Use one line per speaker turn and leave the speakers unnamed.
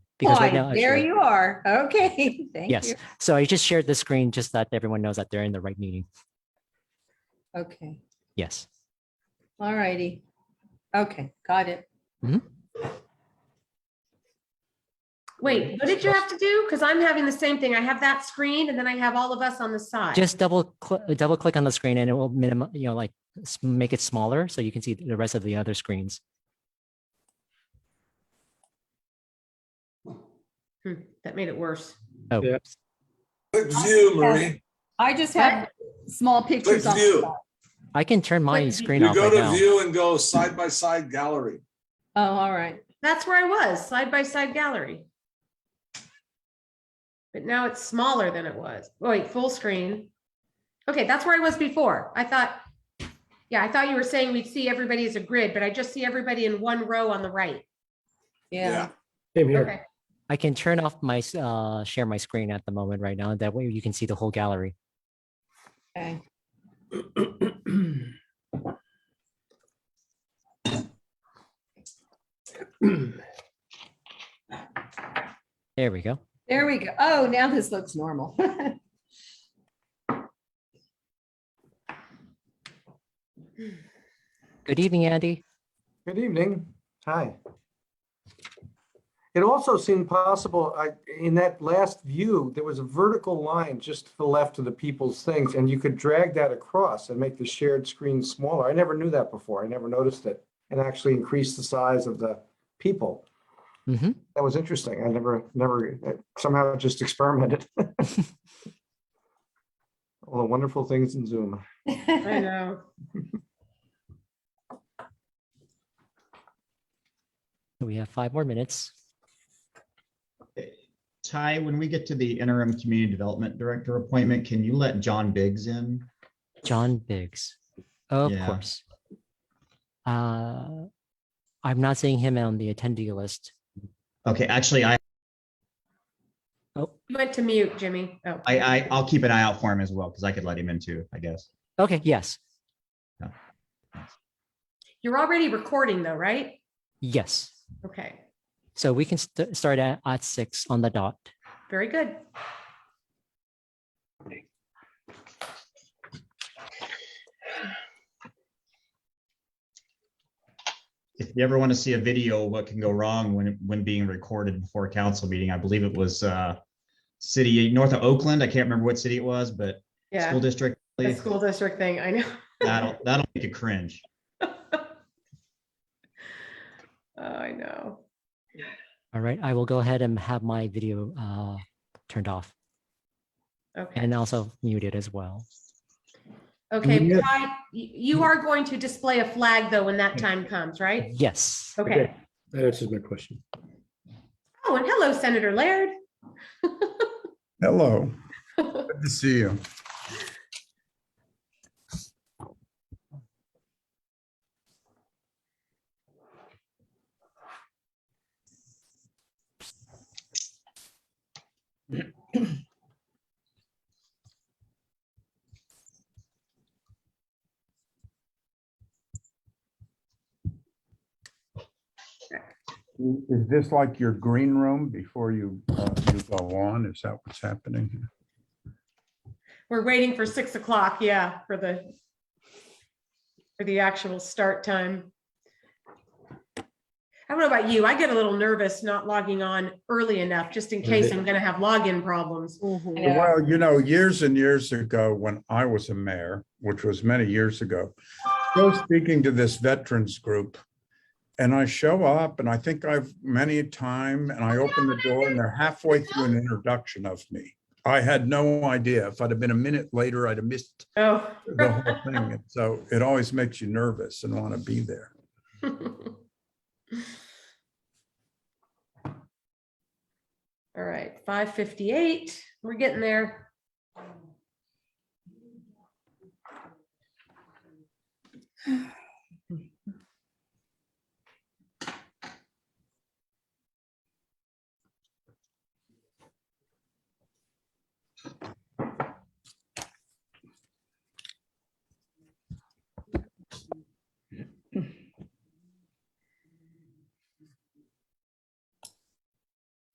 because right
Oh,
Fine.
now. I
There
show-
you are. Okay, thank
Yes,
you.
so I just shared the screen just that everyone knows that they're in the right meeting.
Okay,
Yes.
all righty. Okay, got it.
Wait, what did you have to do? Because I'm having the same thing. I have that screen and then I have all of us on the side.
Just double, cl- double click on the screen and it will minimum, you know, like s- make it smaller so you can see the rest of the other screens.
Hmm, That made it worse.
Oh,
Yeah.
Click view, Marie.
I just have small pictures on the
view.
side.
I can turn my
Click-
screen
You
off
go
right
to
now.
view and go side by side gallery.
Oh, all right.
That's where I was, side by side gallery. But now it's smaller than it was. Oh, Wait, full screen. Okay, that's where I was before. I thought, yeah, I thought you were saying we'd see everybody as a grid, but I just see everybody in one row on the right.
Yeah.
Same here.
Okay,
I can turn off my, s- uh, share my screen at the moment right now. That way you can see the whole gallery.
Okay.
There we go.
There we go. Oh, now this looks normal.
Good evening, Andy.
Good evening. Hi. It also seemed possible, I, in that last view, there was a vertical line just to the left of the people's things, and you could drag that across and make the shared screen smaller. I never knew that before. I never noticed it. And actually increase the size of the people.
Mhm.
That was interesting. I never, never, somehow just experimented. All the wonderful things in Zoom.
I know.
We have five more minutes.
Ty, when we get to the interim community development director appointment, can you let John Biggs in?
John Biggs. Of
Yeah.
course. Uh, I'm not seeing him on the attendee list.
Okay, actually, I,
You went to mute, Jimmy. Oh,
I, I, uh I'll keep an eye out for him as well, because I could let him in too, I guess.
Okay, yes,
you're already recording though, right?
yes.
Okay,
So we can st- start at, at six on the dot.
very good.
If you ever want to see a video, of what can go wrong when, when being recorded before a council meeting, I believe it was, uh, city north of Oakland. I can't remember what city it was, but
Yeah,
school district.
the school district thing, I know.
That'll, that'll make you cringe.
Oh, I know.
All right, I will go ahead and have my video uh, turned off
Okay.
and also muted as well.
Okay,
Yeah.
Ty, y- you are going to display a flag though when that time comes, right?
Yes.
Okay.
That answers my question.
Oh, and hello, Senator Laird.
Hello. Good to see you. Is this like your green room before you, uh, you go on? Is that what's happening? here?
We're waiting for six o'clock, yeah, for the for the actual start time. I don't know about you. I get a little nervous not logging on early enough, just in case I'm gonna have login problems.
Yeah.
Well, you know, years and years ago, when I was a mayor, which was many years ago, I was speaking to this veterans group. And I show up and I think I've many time and I open the door and they're halfway through an introduction of me. I had no idea. If I'd have been a minute later, I'd have missed
Oh.
the whole thing. And So it always makes you nervous and want to be there.
All right, five fifty-eight, we're getting there.